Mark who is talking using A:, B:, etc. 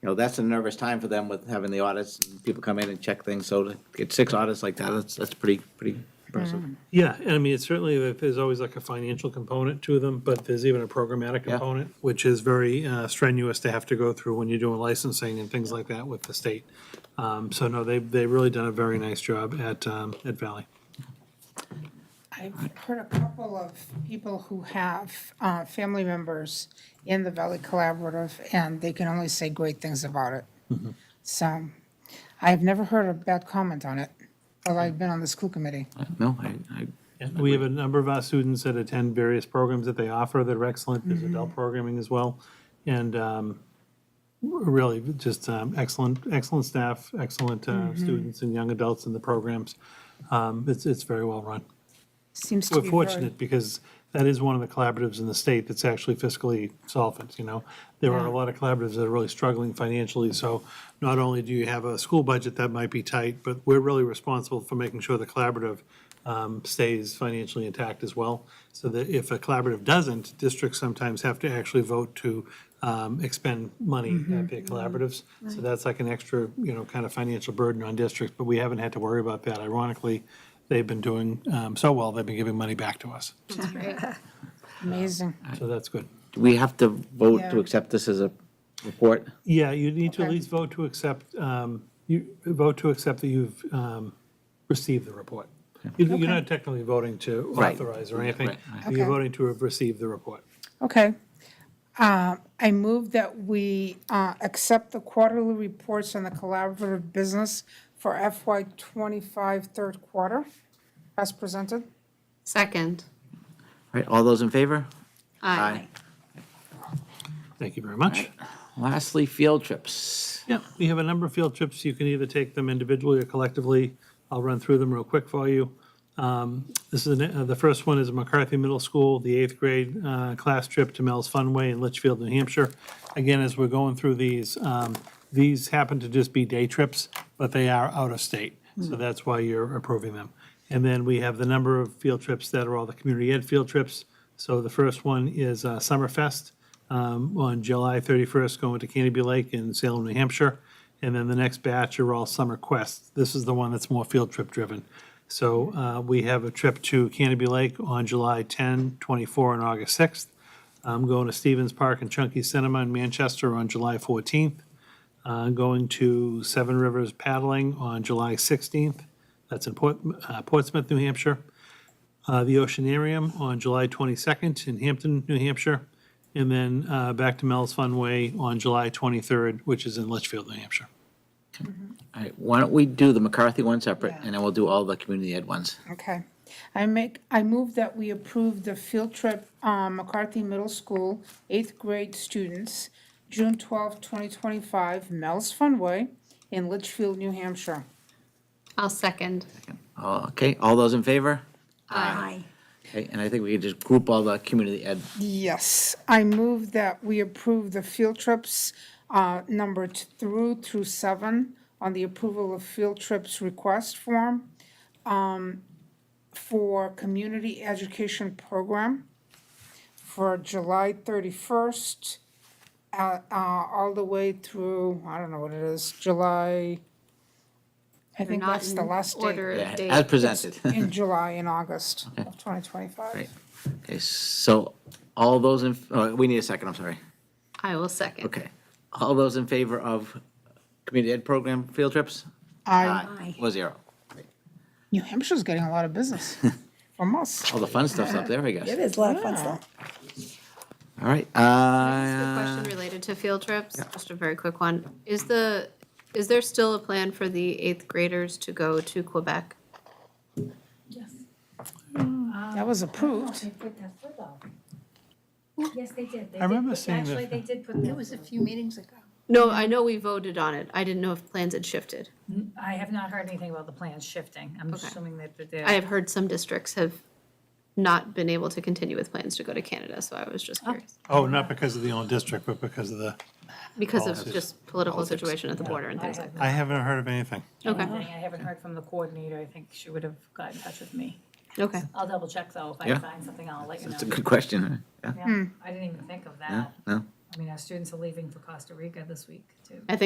A: you know, that's a nervous time for them with having the audits, and people come in and check things, so to get six audits like that, that's, that's pretty, pretty impressive.
B: Yeah, and I mean, it's certainly, there's always like a financial component to them, but there's even a programmatic
A: Yeah.
B: component, which is very uh, strenuous to have to go through when you're doing licensing and things like that with the state. Um, So no, they've, they've really done a very nice job at, um, at Valley.
C: I've heard a couple of people who have uh, family members in the Valley Collaborative, and they can only say great things about it. So I've never heard a bad comment on it, although I've been on the school committee.
A: No, I, I,
B: And We have a number of our students that attend various programs that they offer that are excellent. There's adult programming as well. And um, really, just um, excellent, excellent staff, excellent uh, students and young adults in the programs. Um, It's, it's very well run.
C: Seems to
B: We're
C: be very.
B: fortunate because that is one of the collaboratives in the state that's actually fiscally solvent, you know? There are a lot of collaboratives that are really struggling financially, so not only do you have a school budget that might be tight, but we're really responsible for making sure the collaborative um, stays financially intact as well. So that if a collaborative doesn't, districts sometimes have to actually vote to um, expend money
C: Mm-hmm.
B: at their collaboratives. So that's like an extra, you know, kind of financial burden on districts, but we haven't had to worry about that. Ironically, they've been doing um, so well, they've been giving money back to us.
C: Amazing.
B: So that's good.
A: do we have to vote to
C: Yeah.
A: accept this as a report?
B: Yeah, you need to at
C: Okay.
B: least vote to accept, um, you vote to accept that you've um, received the report. You- You're not technically voting to
A: Right.
B: authorize or anything.
A: Right, right.
B: You're
C: Okay.
B: voting to have received the report.
C: Okay. Uh, I move that we uh, accept the quarterly reports on the collaborative business for FY '25 third quarter, as presented.
D: Second.
A: All right, all those in favor? Aye.
B: Thank you very much.
A: Lastly, field trips.
B: Yeah, we have a number of field trips. You can either take them individually or collectively. I'll run through them real quick for you. Um, This is, an- uh, the first one is McCarthy Middle School, the eighth grade uh, class trip to Mel's Funway in Litchfield, New Hampshire. Again, as we're going through these, um, these happen to just be day trips, but they are out of state. So that's why you're approving them. And then we have the number of field trips that are all the community ed field trips. So the first one is uh, Summerfest um, on July 31st, going to Canterbury Lake in Salem, New Hampshire. And then the next batch are all summer quests. This is the one that's more field trip driven. So uh, we have a trip to Canterbury Lake on July 10, 24, and August 6th. I'm going to Stevens Park and Chunky Cinema in Manchester on July 14th. Uh, Going to Seven Rivers paddling on July 16th. That's in Port- uh, Portsmouth, New Hampshire uh, the Oceanarium on July 22nd in Hampton, New Hampshire, and then uh, back to Mel's Funway on July 23rd, which is in Litchfield, New Hampshire.
A: All right, why don't we do the McCarthy one separate, and then we'll do all the community ed ones.
C: Okay. I make, I move that we approve the field trip, um, McCarthy Middle School, eighth grade students, June twelfth, twenty twenty-five, Mel's Funway in Litchfield, New Hampshire.
D: I'll second.
A: Uh, Okay, all those in favor?
D: Aye.
A: Okay, and I think we could just group all the community ed.
C: Yes, I move that we approve the field trips, uh, number t- through through seven on the approval of field trips request form, um, for community education program for July thirty-first, uh, uh, all the way through, I don't know what it is, July, I
D: They're
C: think
D: not
C: that's
D: in
C: the last
D: order
C: day.
D: of
A: Yeah, As
D: date.
A: presented.
C: In July and August of twenty twenty-five.
A: Right. Okay, so all those in, oh, we need a second, I'm sorry.
D: I will second.
A: Okay. All those in favor of community ed program field trips?
C: I,
A: Four zero.
C: New Hampshire's getting a lot of business from us.
A: All the fun stuff's up there, I guess.
E: It is a lot of fun stuff.
A: All right,
D: Just a
A: uh,
D: question related to field trips, just a very quick one. Is the, is there still a plan for the eighth graders to go to Quebec?
C: That was approved.
F: They put that foot out. Yes, they did. They
B: I remember
F: did put-
B: seeing that.
F: Actually, they did put that. foot
G: few meetings ago.
D: No, I know we voted on it. I didn't know if plans had shifted.
F: out. I have not heard anything about the plans shifting. I'm assuming that they're there.
D: I have heard some districts have not been able to continue with plans to go to Canada, so I was just curious.
B: Oh, not because of the own district, but because of the,
D: Because of just political situation at the border and things like that.
B: I haven't heard of anything.
D: Okay,
F: I haven't heard from the coordinator. I think she would have got in touch with me.
D: okay.
F: I'll double check though. If I
A: Yeah.
F: find something, I'll let you know.
A: it's a good question. huh? Yeah,
F: Yeah, I didn't even think of that.
A: no,
F: I mean, our students are leaving for Costa Rica this week, too.